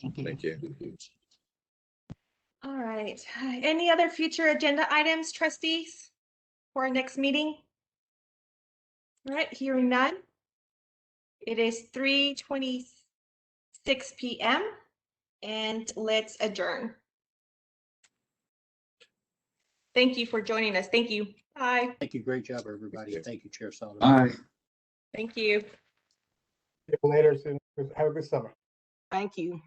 Thank you. All right. Any other future agenda items, trustees, for our next meeting? All right, hearing none. It is three twenty-six PM and let's adjourn. Thank you for joining us. Thank you. Bye. Thank you. Great job, everybody. you. Thank you, Chair Sullivan. Aye. Thank you. See you later. soon. Have a good summer. Thank you.